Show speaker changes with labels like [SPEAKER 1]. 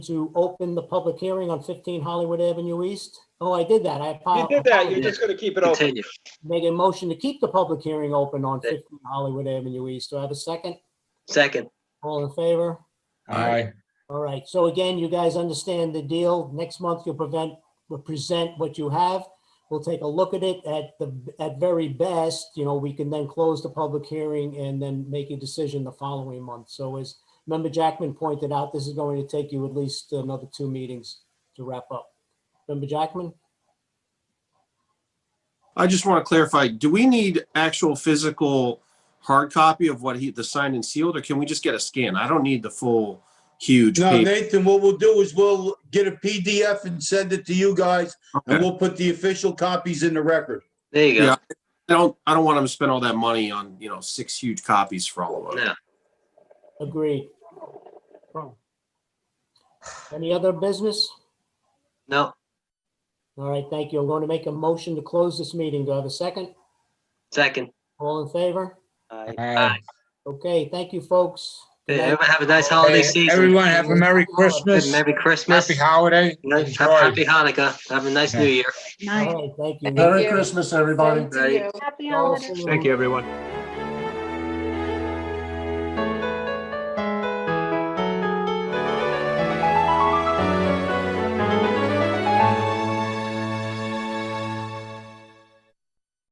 [SPEAKER 1] to open the public hearing on 15 Hollywood Avenue East? Oh, I did that. I
[SPEAKER 2] You did that, you're
[SPEAKER 1] apologize.
[SPEAKER 2] just gonna keep it open.
[SPEAKER 3] Continue.
[SPEAKER 1] Make a motion to keep the public hearing open on
[SPEAKER 3] Second.
[SPEAKER 1] 15 Hollywood Avenue East. Do I have a second?
[SPEAKER 3] Second.
[SPEAKER 1] All in favor?
[SPEAKER 4] Aye.
[SPEAKER 1] All right. So again, you guys understand the deal. Next month, you'll prevent, will present what you have. We'll take a look at it at the, at very best, you know, we can then close the public hearing and then make a decision the following month. So as member Jackman pointed out, this is going to take you at least another two meetings to wrap up. Member Jackman?
[SPEAKER 5] I just want to clarify, do we need actual physical hard copy of what he, the signed and sealed, or can we just get a scan? I don't need the full huge
[SPEAKER 6] No,
[SPEAKER 5] paper.
[SPEAKER 6] Nathan, what we'll do is we'll get a PDF and send it to you guys, and
[SPEAKER 5] Okay.
[SPEAKER 6] we'll put the official copies in the record.
[SPEAKER 3] There you
[SPEAKER 5] Yeah.
[SPEAKER 3] go.
[SPEAKER 5] I don't, I don't want him to spend all that money on, you know, six huge copies for all of us.
[SPEAKER 3] Now,
[SPEAKER 1] Agreed. Any other business?
[SPEAKER 3] no,
[SPEAKER 1] All right, thank you. I'm going to make a motion to close this meeting. Do I have a second?
[SPEAKER 3] second.
[SPEAKER 1] All in favor?
[SPEAKER 3] Aye.
[SPEAKER 4] Aye.
[SPEAKER 1] Okay, thank you, folks. Good
[SPEAKER 3] Hey,
[SPEAKER 1] night.
[SPEAKER 3] Everyone have a nice holiday
[SPEAKER 4] Hey,
[SPEAKER 3] season.
[SPEAKER 4] Everyone have a Merry Christmas,
[SPEAKER 3] Merry Christmas.
[SPEAKER 4] Happy Holiday.
[SPEAKER 3] Nice-
[SPEAKER 4] Enjoy.
[SPEAKER 3] Happy Hanukkah. Have a nice New Year.
[SPEAKER 1] All right, thank you.
[SPEAKER 7] Merry Christmas,
[SPEAKER 8] everybody.
[SPEAKER 3] Right.
[SPEAKER 7] Happy holidays.
[SPEAKER 1] Thank you, everyone.